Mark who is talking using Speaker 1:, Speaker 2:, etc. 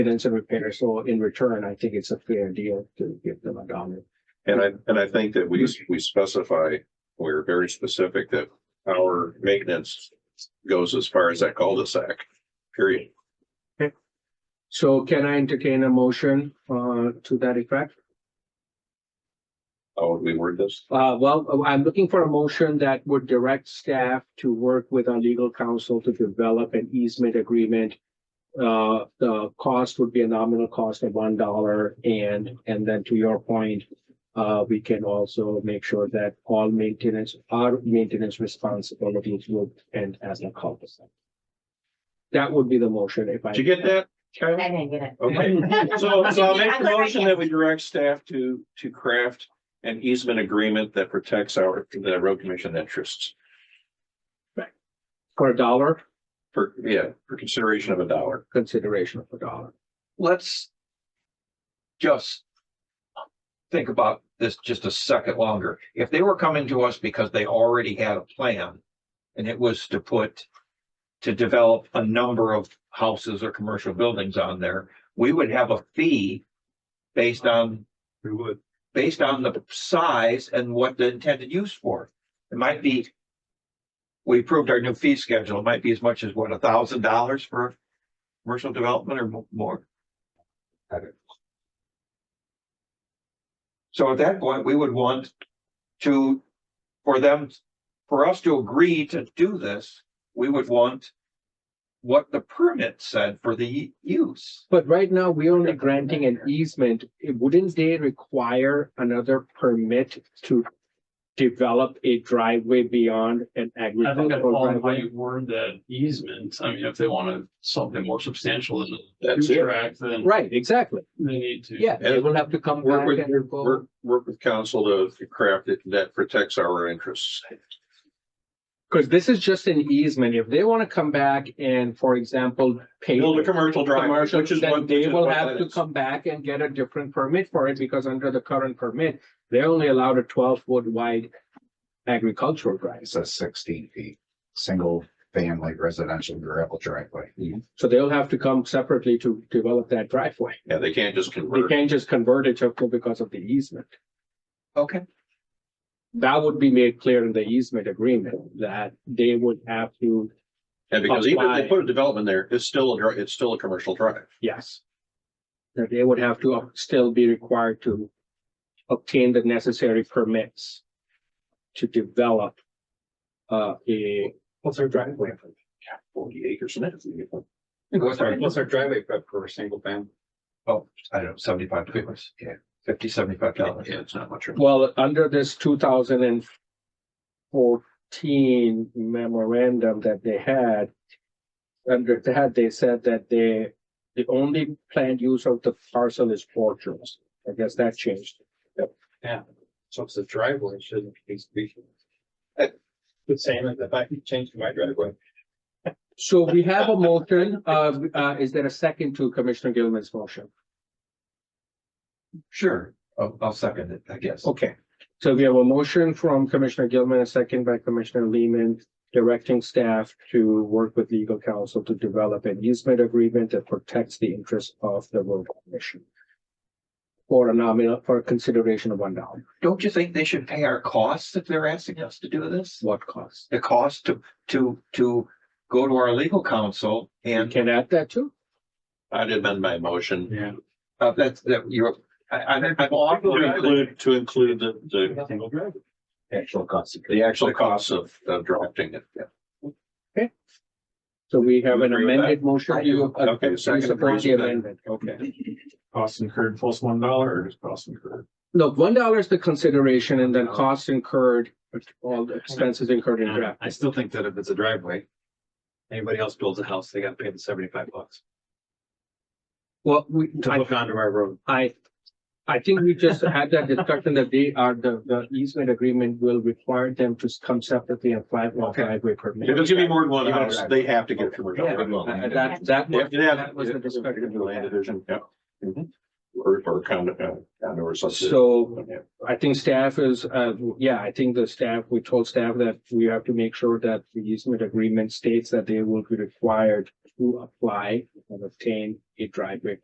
Speaker 1: maintenance and repair. So in return, I think it's a fair deal to give them a dollar.
Speaker 2: And I, and I think that we, we specify, we're very specific that our maintenance goes as far as that cul-de-sac, period.
Speaker 1: So can I entertain a motion uh to that effect?
Speaker 2: How would we word this?
Speaker 1: Uh, well, I'm looking for a motion that would direct staff to work with our legal counsel to develop an easement agreement. Uh, the cost would be a nominal cost of one dollar and, and then to your point, uh, we can also make sure that all maintenance, our maintenance responsibilities would end as a cul-de-sac. That would be the motion if I.
Speaker 2: Did you get that? Kyle?
Speaker 3: I didn't get it.
Speaker 2: Okay, so, so I'll make the motion that we direct staff to, to craft an easement agreement that protects our, the road commission interests.
Speaker 1: For a dollar,
Speaker 2: For, yeah, for consideration of a dollar.
Speaker 1: consideration of a dollar.
Speaker 4: let's just think about this just a second longer. If they were coming to us because they already had a plan and it was to put to develop a number of houses or commercial buildings on there, we would have a fee based on
Speaker 2: We would.
Speaker 4: based on the size and what the intended use for. It might be. We approved our new fee schedule. It might be as much as what, a thousand dollars for commercial development or mo- more. I don't know. So at that point, we would want to, for them, for us to agree to do this, we would want. What the permit said for the use.
Speaker 1: But right now, we're only granting an easement. It- Wouldn't they require another permit to develop a driveway beyond an
Speaker 5: I think that
Speaker 1: agricultural
Speaker 5: all how
Speaker 1: driveway?
Speaker 5: you word that easement, I mean, if they wanted something more substantial than a
Speaker 2: That's
Speaker 5: two
Speaker 2: it.
Speaker 5: track, then
Speaker 1: Right, exactly.
Speaker 5: they need to.
Speaker 1: Yeah, they will have to come
Speaker 2: Work
Speaker 1: back
Speaker 2: with-
Speaker 1: and go.
Speaker 2: Work, work with council to craft it that protects our interests.
Speaker 1: Because this is just an easement. If they want to come back and, for example, pay
Speaker 2: Build a
Speaker 1: the
Speaker 2: commercial driveway,
Speaker 1: commercial,
Speaker 2: which is
Speaker 1: then
Speaker 2: what which
Speaker 1: they
Speaker 2: is
Speaker 1: will
Speaker 2: what
Speaker 1: have
Speaker 2: that
Speaker 1: to
Speaker 2: is.
Speaker 1: come back and get a different permit for it because under the current permit, they're only allowed a twelve foot wide agricultural driveway.
Speaker 6: It says sixteen feet, single family residential gravel driveway.
Speaker 1: Mm-hmm. So they'll have to come separately to develop that driveway.
Speaker 2: Yeah, they can't just
Speaker 1: They
Speaker 2: convert.
Speaker 1: can't just convert it to because of the easement.
Speaker 4: Okay.
Speaker 1: That would be made clear in the easement agreement that they would have to,
Speaker 2: And because even if
Speaker 1: Apply.
Speaker 2: they put a development there, it's still a, dri- it's still a commercial drive.
Speaker 1: yes. That they would have to still be required to obtain the necessary permits to develop uh, a. What's our driveway?
Speaker 2: Forty acres and that's.
Speaker 4: What's our-
Speaker 7: What's our driveway prep for a single family?
Speaker 4: Oh, I don't know, seventy-five dollars. Yeah. Fifty, seventy-five dollars.
Speaker 2: Yeah, it's not much.
Speaker 1: Well, under this two thousand and fourteen memorandum that they had. Under that, they said that they, the only planned use of the parcel is orchards. I guess that changed.
Speaker 7: So it's a driveway, it shouldn't be speaking. The same as if I could change my driveway.
Speaker 1: So we have a motion, uh, uh, is there a second to Commissioner Gilman's motion?
Speaker 4: Sure, I'll, I'll second it, I guess.
Speaker 1: Okay, so we have a motion from Commissioner Gilman, a second by Commissioner Lehman, directing staff to work with legal counsel to develop an easement agreement that protects the interests of the road commission. For a nominal, for a consideration of one dollar,
Speaker 4: Don't you think they should pay our costs if they're asking us to do this?
Speaker 1: what cost?
Speaker 4: The cost to, to, to go to our legal counsel
Speaker 1: You
Speaker 4: and,
Speaker 1: can add that too.
Speaker 2: I'd amend my motion
Speaker 5: Yeah.
Speaker 4: uh, that's, that you're, I, I, I'm
Speaker 2: to
Speaker 4: offering
Speaker 2: include, to include the, the,
Speaker 6: Actual cost.
Speaker 2: the actual costs of, of drafting it.
Speaker 1: So we have an
Speaker 2: Agree with that?
Speaker 1: amended motion.
Speaker 4: I do.
Speaker 1: Uh,
Speaker 2: Okay,
Speaker 1: you
Speaker 2: second
Speaker 1: Support
Speaker 2: agrees
Speaker 1: the
Speaker 2: with that.
Speaker 1: amendment, okay.
Speaker 7: Cost incurred plus one dollar or just cost incurred?
Speaker 1: Look, one dollar is the consideration and then costs incurred, all the expenses incurred in draft.
Speaker 7: I still think that if it's a driveway, anybody else builds a house, they gotta pay the seventy-five bucks
Speaker 1: Well, we,
Speaker 7: to
Speaker 1: I
Speaker 7: hook onto our road.
Speaker 1: I, I think we just had that discussion that they are, the, the easement agreement will require them to come separately and apply for a
Speaker 4: Okay.
Speaker 1: driveway
Speaker 2: If
Speaker 1: permit.
Speaker 2: it's gonna be more than one house, they have to get a commercial.
Speaker 4: Yeah.
Speaker 1: Uh,
Speaker 2: development.
Speaker 1: That, that,
Speaker 2: They
Speaker 1: was-
Speaker 2: have to have-
Speaker 1: that was the discussion. Mm-hmm.
Speaker 2: Land division, yeah. Or, or condo, uh, condo or something.
Speaker 1: So
Speaker 2: Yeah.
Speaker 1: I think staff is, uh, yeah, I think the staff, we told staff that we have to make sure that the easement agreement states that they will be required to apply and obtain a driveway